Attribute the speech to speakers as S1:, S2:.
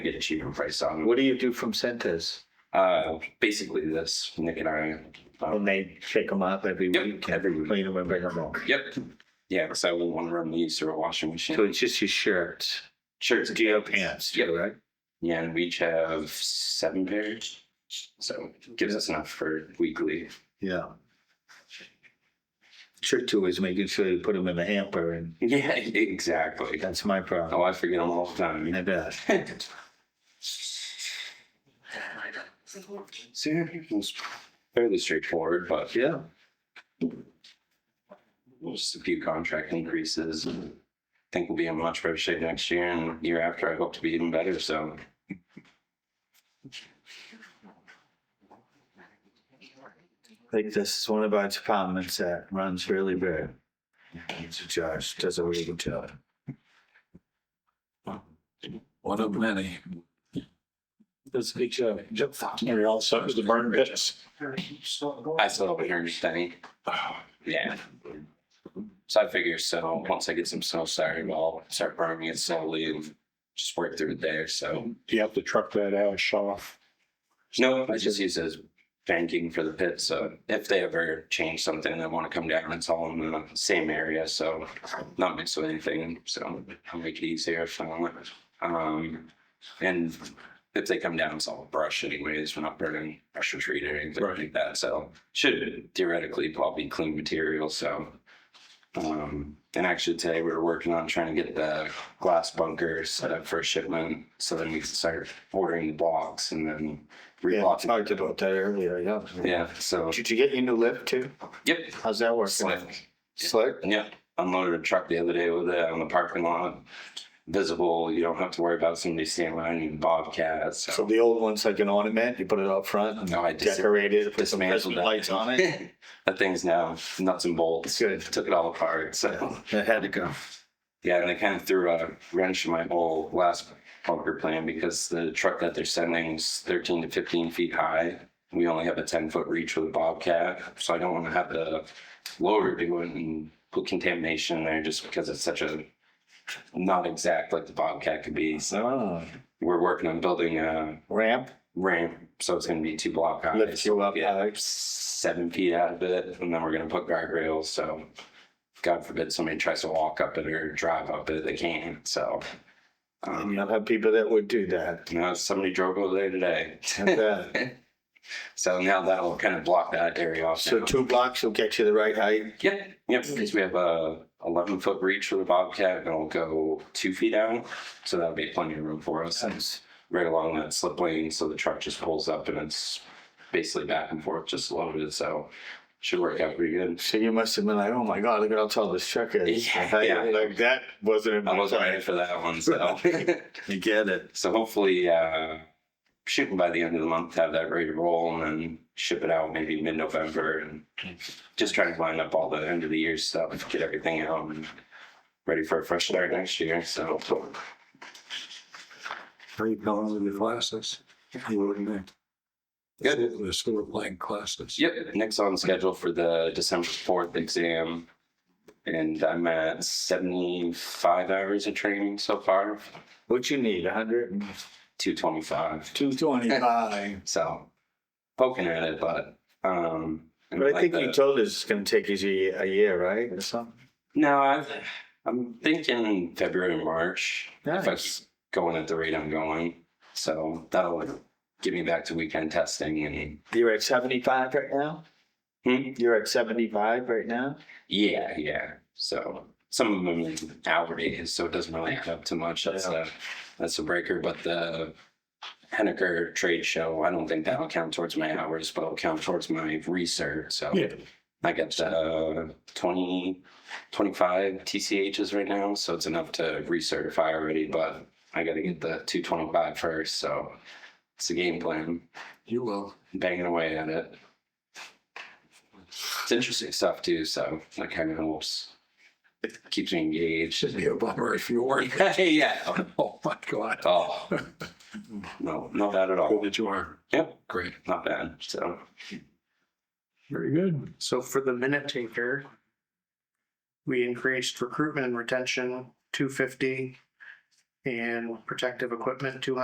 S1: issue from Price Song.
S2: What do you do from Centers?
S1: Uh, basically this, Nick and I.
S2: When
S1: um,
S2: they shake them up every
S1: Yep,
S2: week
S1: every
S2: and
S1: week.
S2: clean them and bring them home.
S1: Yep. Yeah, so we want to run these through a washing
S2: So
S1: machine.
S2: it's just your shirts,
S1: Shirts,
S2: do you have pants
S1: Yep.
S2: too, right?
S1: Yeah, and we each have seven pairs. So it gives us enough for weekly.
S2: Yeah. Trick too is making sure you put them in the hamper and
S1: Yeah, exactly.
S2: that's my problem.
S1: Oh, I forget them all the time.
S2: I bet.
S1: See, it's fairly straightforward, but
S2: Yeah.
S1: just a few contract increases. I think we'll be in much better shape next year and year after. I hope to be even better. So
S2: think this is one of our departments that runs really big. It's a Josh, does a really good job.
S3: One of many.
S2: Does a good job.
S3: Maybe also is the burn pits.
S1: I still haven't heard anything. Yeah. So I figure so once I get some snow started, I'll start burning it slowly and just work through it there. So
S3: Do you have to truck that ash off?
S1: no, I just use it as banking for the pit. So if they ever change something and want to come down, it's all in the same area. So not mixed with anything. So I'll make it easier if I want. Um, and if they come down, it's all brush anyways. We're not burning brush or treat or anything like
S3: Right.
S1: that. So should theoretically probably clean material. So, um, and actually today we were working on trying to get the glass bunker set up for a shipment. So then we can start ordering the blocks and then
S2: Yeah, I
S1: reblocking.
S2: talked about that earlier, yeah.
S1: Yeah. So
S2: Did you get your new lift too?
S1: yep.
S2: How's that working?
S1: Slick.
S2: Slick?
S1: Yeah, unloaded a truck the other day with it on the parking lot. Visible, you don't have to worry about somebody standing behind you, bobcats.
S2: So
S1: So.
S2: the old one's like an ornament, you put it up front and
S1: No, I dis-
S2: decorate it, put some
S1: dismantled
S2: Christmas
S1: that.
S2: lights on it.
S1: that thing's now nuts and bolts.
S2: Good.
S1: Took it all apart. So
S2: It had to go.
S1: yeah, and they kind of threw a wrench in my whole last bunker plan because the truck that they're sending is 13 to 15 feet high. We only have a 10 foot reach with a bobcat, so I don't want to have the loader do it and put contamination in there just because it's such a not exact like the bobcat could be. So
S2: Oh,
S1: we're working on building a
S2: ramp,
S1: ramp, so it's going to be two block high.
S2: lift you up,
S1: Yeah
S2: Alex.
S1: seven feet out of it, and then we're gonna put guardrails. So, God forbid somebody tries to walk up it or drive up it, they can't. So,
S2: Um,
S1: um,
S2: I've had people that would do that.
S1: you know, somebody drove over there today.
S2: And, uh,
S1: so now that'll kind of block that area off.
S2: So
S1: now.
S2: two blocks will get you the right height.
S1: Yep, yep. Because we have a 11 foot reach for the bobcat, and it'll go two feet out, so that'll be plenty of room for us. And it's right along that slip lane, so the truck just pulls up and it's basically back and forth, just loaded. So, should work out pretty good.
S2: So you must have been like, oh my God, look at how tall this truck is.
S1: Yeah,
S2: Like,
S1: yeah.
S2: Like that wasn't in
S1: I
S2: my
S1: wasn't ready
S2: time.
S1: for that one, so
S2: You get it.
S1: so hopefully uh, shooting by the end of the month, have that ready to roll, and then ship it out maybe mid-November, and just trying to line up all the end of the year stuff, get everything out, and ready for a fresh start next year. So
S3: Are you going to the classes? You wouldn't think.
S1: Good.
S3: The school of playing classes.
S1: yep, Nick's on schedule for the December fourth exam. And I'm at 75 hours of training so far,
S2: What you need, a hundred and
S1: 225.
S2: two twenty-five.
S1: So poking at it, but um,
S2: But I think
S1: like
S2: you
S1: the-
S2: told us it's gonna take you a year, right, or something?
S1: No, I, I'm thinking February, March. If I
S2: Nice.
S1: keep going at the rate I'm going, so that'll get me back to weekend testing and.
S2: You're at seventy-five right now?
S1: Hmm?
S2: You're at seventy-five right now?
S1: Yeah, yeah. So some of them in hour days, so it doesn't really add up to much. That's
S2: Yeah.
S1: a that's a breaker. But the Henniker trade show, I don't think that'll count towards my hours, but it'll count towards my research. So
S3: Yeah.
S1: I got uh, 20, 25 TCHs right now, so it's enough to recertify already, but I got to get the 225 first. So it's a game plan,
S3: You will.
S1: banging away at it. It's interesting stuff too, so that kind of helps. Keeps me engaged.
S3: Should be a bummer if you weren't.
S1: yeah.
S3: Oh, my God.
S1: Oh, no, not bad at all.
S3: That you are.
S1: Yep,
S3: Great.
S1: not bad. So,
S3: Very good.
S4: So for the minute taker, we increased recruitment and retention two fifty and protective equipment two hundred.